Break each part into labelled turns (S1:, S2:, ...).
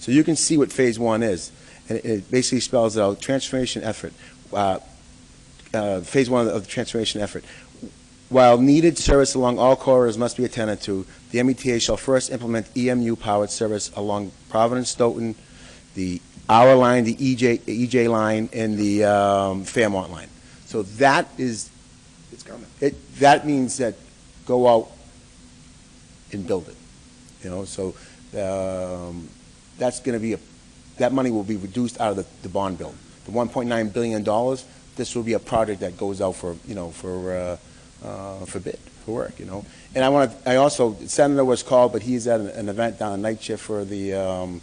S1: So you can see what phase one is. And it- it basically spells out transformation effort, uh, uh, phase one of the transformation effort. While needed service along all corridors must be attended to, the META shall first implement EMU-powered service along Providence, Stoughton, the Hour Line, the E EJ, EJ Line, and the um, Fairmont Line. So that is,
S2: It's coming.
S1: it, that means that go out and build it, you know, so, um, that's gonna be, a that money will be reduced out of the, the bond bill. The one point nine billion dollars, this will be a project that goes out for, you know, for, uh, uh, for bid, for work, you know. And I wanna, I also, Senator was called, but he's at an, an event down in Night Shift for the, um,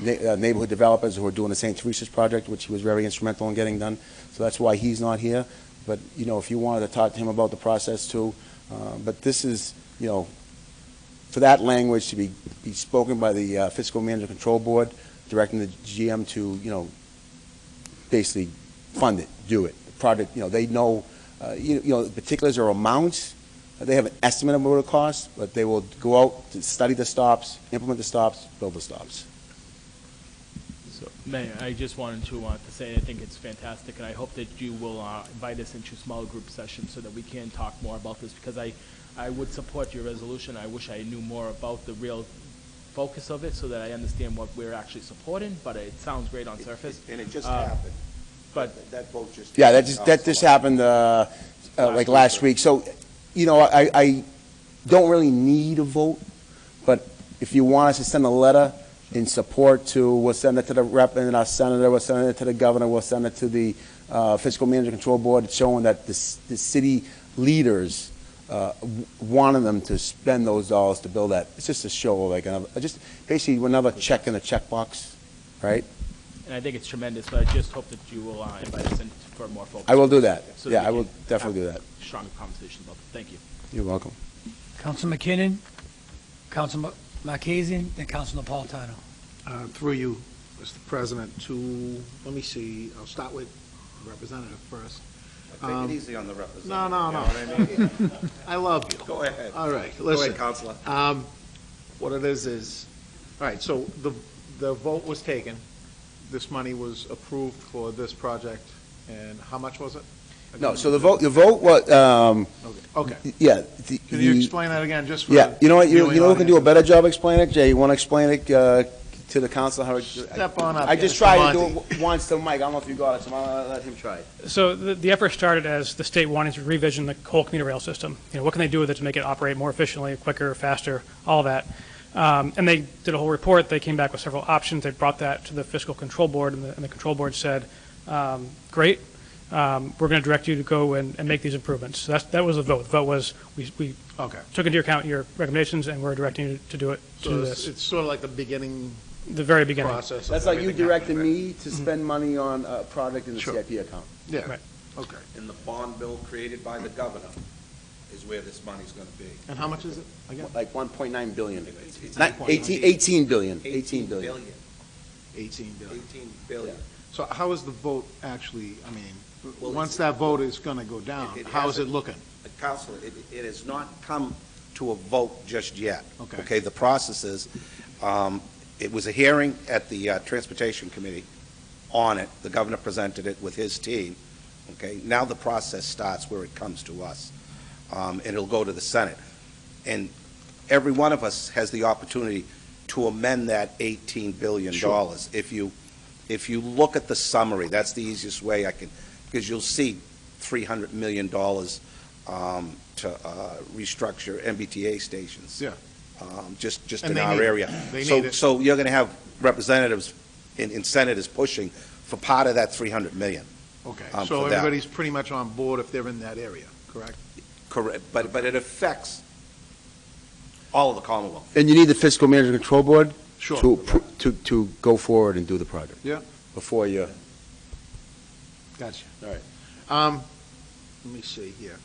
S1: na- uh, neighborhood developers who are doing the St. Teresa's project, which he was very instrumental in getting done. So that's why he's not here. But, you know, if you wanted to talk to him about the process too, uh, but this is, you know, for that language to be, be spoken by the uh, Fiscal Management Control Board, directing the GM to, you know, basically fund it, do it. The project, you know, they know, uh, you you know, the particulars or amounts, uh, they have an estimate of what it costs, but they will go out to study the stops, implement the stops, build the stops.
S3: So, Mayor, I just wanted to, uh, to say, I think it's fantastic, and I hope that you will, uh, invite us into smaller group sessions so that we can talk more about this, because I, I would support your resolution, I wish I knew more about the real focus of it, so that I understand what we're actually supporting, but it sounds great on surface.
S2: And it just
S3: Uh,
S2: happened.
S3: But
S2: That- That vote just.
S1: Yeah, that just, that just happened, uh, uh, like last week. So, you know, I, I don't really need a vote, but if you want us to send a letter in support to, we'll send it to the rep and our senator, we'll send it to the governor, we'll send it to the, uh, fiscal manager control board, showing that the, s- the city leaders, uh, w- wanted them to spend those dollars to build that. It's just a show, like, another, just basically another check in a checkbox, right?
S3: And I think it's tremendous, but I just hope that you will uh, invite us in for a more focused.
S1: I will do that.
S3: so
S1: Yeah,
S3: we
S1: I will
S3: can have
S1: definitely do that.
S3: Stronger conversation about it. Thank you.
S1: You're welcome.
S4: Council McKinnon, Council Marquezine, and Council Napolitano.
S5: Uh, Through you, Mr. President, to, let me see, I'll start with Representative first.
S2: Take it easy on the representative.
S5: No, no,
S2: you know
S5: no.
S2: what I mean?
S5: I love you.
S2: Go ahead.
S5: All right,
S2: Go ahead,
S5: listen.
S2: Counselor.
S5: Um, What it is, is, all right, so the, the vote was taken, this money was approved for this project, and how much was it?
S1: No, so the vote, the vote, what, um,
S5: Okay, Okay,
S1: yeah. the-
S5: can you
S1: the-
S5: explain that again, just for?
S1: Yeah, you know what, you,
S5: viewing
S1: you know who can do a
S5: audience?
S1: better job explaining it, Jay? You wanna explain it, uh, to the council how it?
S5: Step on up,
S1: I just
S5: Mr.
S1: tried to do
S5: Monti.
S1: it w- once to Mike, I don't know if you got it, so I'll let him try it.
S6: So the, the effort started as the state wanting to revision the whole commuter rail system. You know, what can they do with it to make it operate more efficiently, quicker, faster, all that? Um, and they did a whole report. They came back with several options. They brought that to the fiscal control board, and the, and the control board said, um, "Great, um, we're going to direct you to go and, and make these improvements." So that's, that was the vote. The vote was we, we
S5: Okay,
S6: took into account your recommendations, and we're directing you to do it to
S5: so it's,
S6: this.
S5: it's sort of like the beginning
S6: the very beginning.
S5: process. of
S1: That's like you
S5: everything happening,
S1: directed me to spend money on a product in the
S5: Sure.
S1: CIP account.
S5: Yeah,
S6: Right.
S5: okay,
S2: And the bond bill created by the governor is where this money's gonna be.
S5: and how much is it again?
S1: Like one point nine billion.
S2: It's- it's
S1: Not,
S2: 8.9.
S1: eighteen, eighteen billion, eighteen
S2: 18
S1: billion.
S2: billion,
S5: 18 billion.
S2: 18 billion.
S5: So how is the vote actually, I mean,
S2: Well,
S5: once
S2: it's-
S5: that vote is going to go down,
S2: It- it
S5: how is it
S2: hasn't.
S5: looking?
S2: Uh, Counselor, it, it has not come to a vote just yet.
S5: Okay.
S2: Okay, the process is, um, it was a hearing at the uh, Transportation Committee on it. The governor presented it with his team. Okay, now the process starts where it comes to us. Um, and it'll go to the Senate. And every one of us has the opportunity to amend that eighteen billion dollars. If you, if you look at the summary, that's the easiest way I can, because you'll see three hundred million dollars um, to uh, restructure MBTA stations.
S5: Yeah.
S2: Um, Just, just
S5: And
S2: in
S5: they
S2: our
S5: need it.
S2: area.
S5: They
S2: So-
S5: need it.
S2: So you're going to have representatives and and senators pushing for part of that 300 million.
S5: Okay,
S2: Um,
S5: so
S2: for that.
S5: everybody's pretty much on board if they're in that area, correct?
S2: Correct. But, but it affects all of the Commonwealth.
S1: And you need the fiscal manager control board
S5: Sure.
S1: to, appro- to, to go forward and do the project.
S5: Yeah.
S1: Before you.
S5: Gotcha, all right. Um, Let me see here.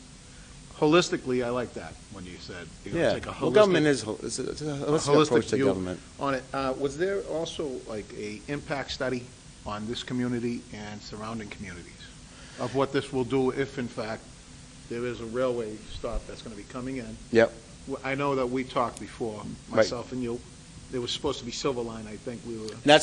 S5: Holistically, I like that, when you said, you know,
S1: Yeah,
S5: take a
S1: well, government
S5: holistic
S1: is, hol- it's a it's a holistic
S5: holistic
S1: approach to
S5: view.
S1: government.
S5: on it. Uh, Was there also like a impact study on this community and surrounding communities of what this will do if in fact there is a railway stop that's going to be coming in?
S1: Yep.
S5: Well, I know that we talked before, myself and you, there was supposed to be Silver Line, I think we were
S1: And that's